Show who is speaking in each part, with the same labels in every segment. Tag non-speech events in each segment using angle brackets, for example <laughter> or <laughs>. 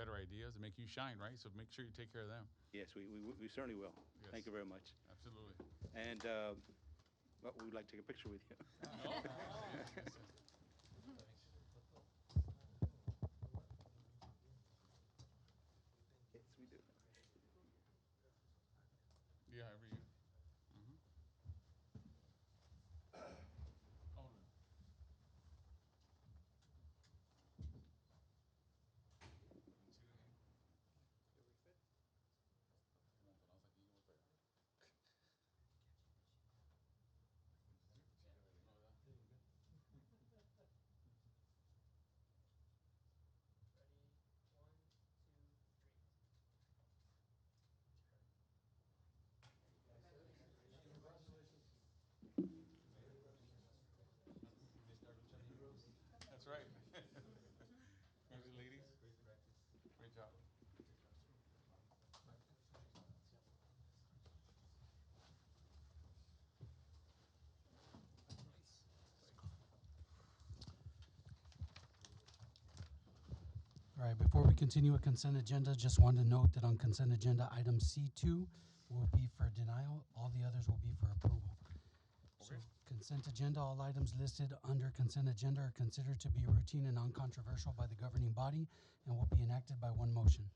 Speaker 1: has to make you shine, right? So make sure you take care of them.
Speaker 2: Yes, we, we, we certainly will.
Speaker 1: Yes.
Speaker 2: Thank you very much.
Speaker 1: <laughs> Absolutely.
Speaker 2: And, uh, well, we'd like to take a picture with you. <laughs> Yes, we do.
Speaker 1: Yeah, every year. Mhm. Alderman. See the name? Come on, but I was like, you know what's better.
Speaker 3: Ready, one, two, three.
Speaker 1: That's right. <laughs> Congratulations, ladies. Great job.
Speaker 4: All right, before we continue with consent agenda, just wanted to note that on consent agenda, item C2 will be for denial, all the others will be for approval. So
Speaker 1: Okay.
Speaker 4: consent agenda, all items listed under consent agenda are considered to be routine and non-controversial by the governing body and will be enacted by one motion.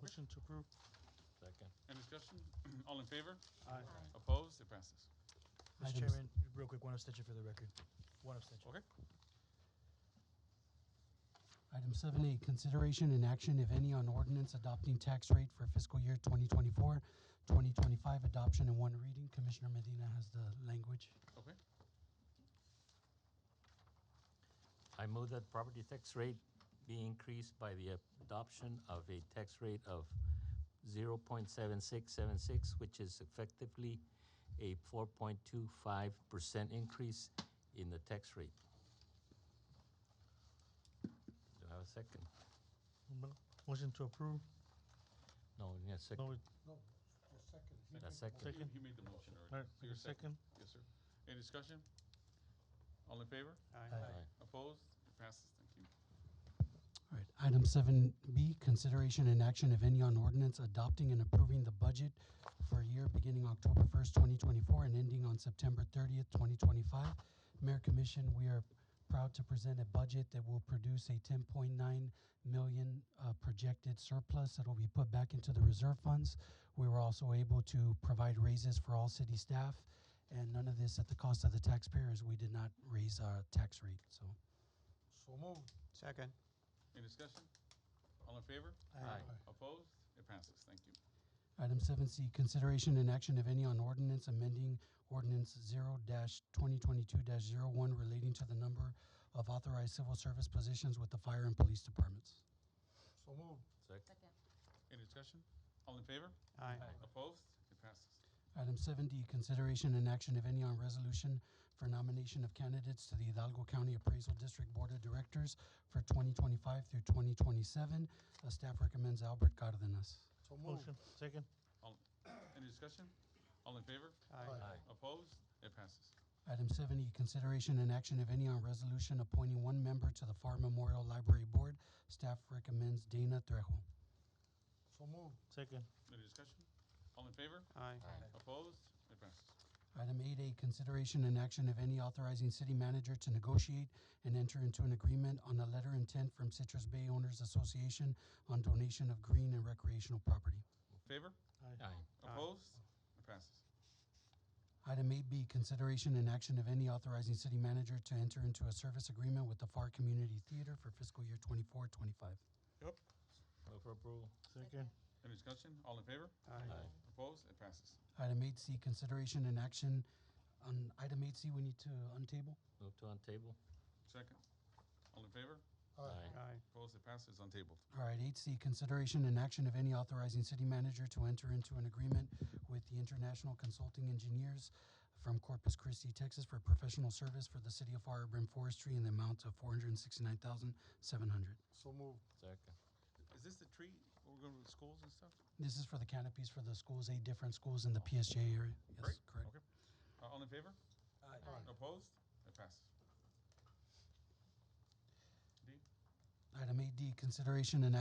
Speaker 5: Motion to approve. Second.
Speaker 1: Any discussion? <clears throat> All in favor?
Speaker 5: Aye.
Speaker 1: Opposed? It passes.
Speaker 4: Items-
Speaker 6: Mr. Chairman, real quick, one abstention for the record. One abstention.
Speaker 1: Okay.
Speaker 4: Item seven A, consideration and action, if any, on ordinance adopting tax rate for fiscal year 2024, 2025, adoption in one reading. Commissioner Medina has the language.
Speaker 1: Okay.
Speaker 5: I move that property tax rate be increased by the adoption of a tax rate of zero point seven six seven six, which is effectively a four point two five percent increase in the tax rate. Do I have a second?
Speaker 6: Motion to approve.
Speaker 5: No, you need a second.
Speaker 6: No,
Speaker 5: A second.
Speaker 1: He- He made the motion already.
Speaker 6: Alright,
Speaker 1: So you're
Speaker 6: second.
Speaker 1: Yes, sir. Any discussion? All in favor?
Speaker 5: Aye.
Speaker 1: Opposed? It passes. Thank you.
Speaker 4: All right, item seven B, consideration and action, if any, on ordinance adopting and approving the budget for a year beginning October first, twenty twenty-four and ending on September thirtieth, twenty twenty-five. Mayor Commission, we are proud to present a budget that will produce a ten point nine million uh, projected surplus that will be put back into the reserve funds. We were also able to provide raises for all city staff, and none of this at the cost of the taxpayer, as we did not raise our tax rate, so.
Speaker 6: So moved. Second.
Speaker 1: Any discussion? All in favor?
Speaker 5: Aye.
Speaker 1: Opposed? It passes. Thank you.
Speaker 4: Item seven C, consideration and action, if any, on ordinance amending ordinance zero twenty twenty-two one relating to the number of authorized civil service positions with the fire and police departments.
Speaker 6: So moved.
Speaker 5: Second.
Speaker 1: Any discussion? All in favor?
Speaker 6: Aye.
Speaker 1: Opposed? It passes.
Speaker 4: Item seven D, consideration and action, if any, on resolution for nomination of candidates to the Hidalgo County Appraisal District Board of Directors for twenty twenty-five through twenty twenty-seven. Uh, staff recommends Albert Cardenas.
Speaker 6: So moved. Motion, second.
Speaker 1: Any discussion? All in favor?
Speaker 5: Aye.
Speaker 1: Opposed? It passes.
Speaker 4: Item seven E, consideration and action, if any, on resolution appointing one member to the Far Memorial Library Board. Staff recommends Dana Trejo.
Speaker 6: So moved. Second.
Speaker 1: Any discussion? All in favor?
Speaker 6: Aye.
Speaker 1: Opposed? It passes.
Speaker 4: Item eight A, consideration and action, if any, authorizing city manager to negotiate and enter into an agreement on a letter intent from Citrus Bay Owners Association on donation of green and recreational property.
Speaker 1: Favor?
Speaker 5: Aye.
Speaker 6: Aye.
Speaker 1: Opposed? It passes.
Speaker 4: Item eight B, consideration and action, if any, authorizing city manager to enter into a service agreement with the Far Community Theater for fiscal year twenty-four, twenty-five.
Speaker 5: Move for approval.
Speaker 6: Second.
Speaker 1: Any discussion? All in favor?
Speaker 5: Aye.
Speaker 1: Opposed? It passes.
Speaker 4: Item eight C, consideration and action on item eight C, we need to untable.
Speaker 5: Move to on table.
Speaker 1: Second. All in favor?
Speaker 5: Aye.
Speaker 1: Opposed? It passes. Untabled.
Speaker 4: All right, eight C, consideration and action of any authorizing city manager to enter into an agreement with the International Consulting Engineers from Corpus Christi, Texas for professional service for the city of Firebrim Forestry in the amount of four hundred and sixty-nine thousand, seven hundred.
Speaker 6: So moved.
Speaker 5: Second.
Speaker 1: Is this the tree? Where we're going to the schools and stuff?
Speaker 4: This is for the canopies for the schools, eight different schools in the PSJ area.
Speaker 1: Great.
Speaker 4: Yes, correct.
Speaker 1: Okay. Uh, All in favor? Opposed? It passes. D?
Speaker 4: Item eight D, consideration and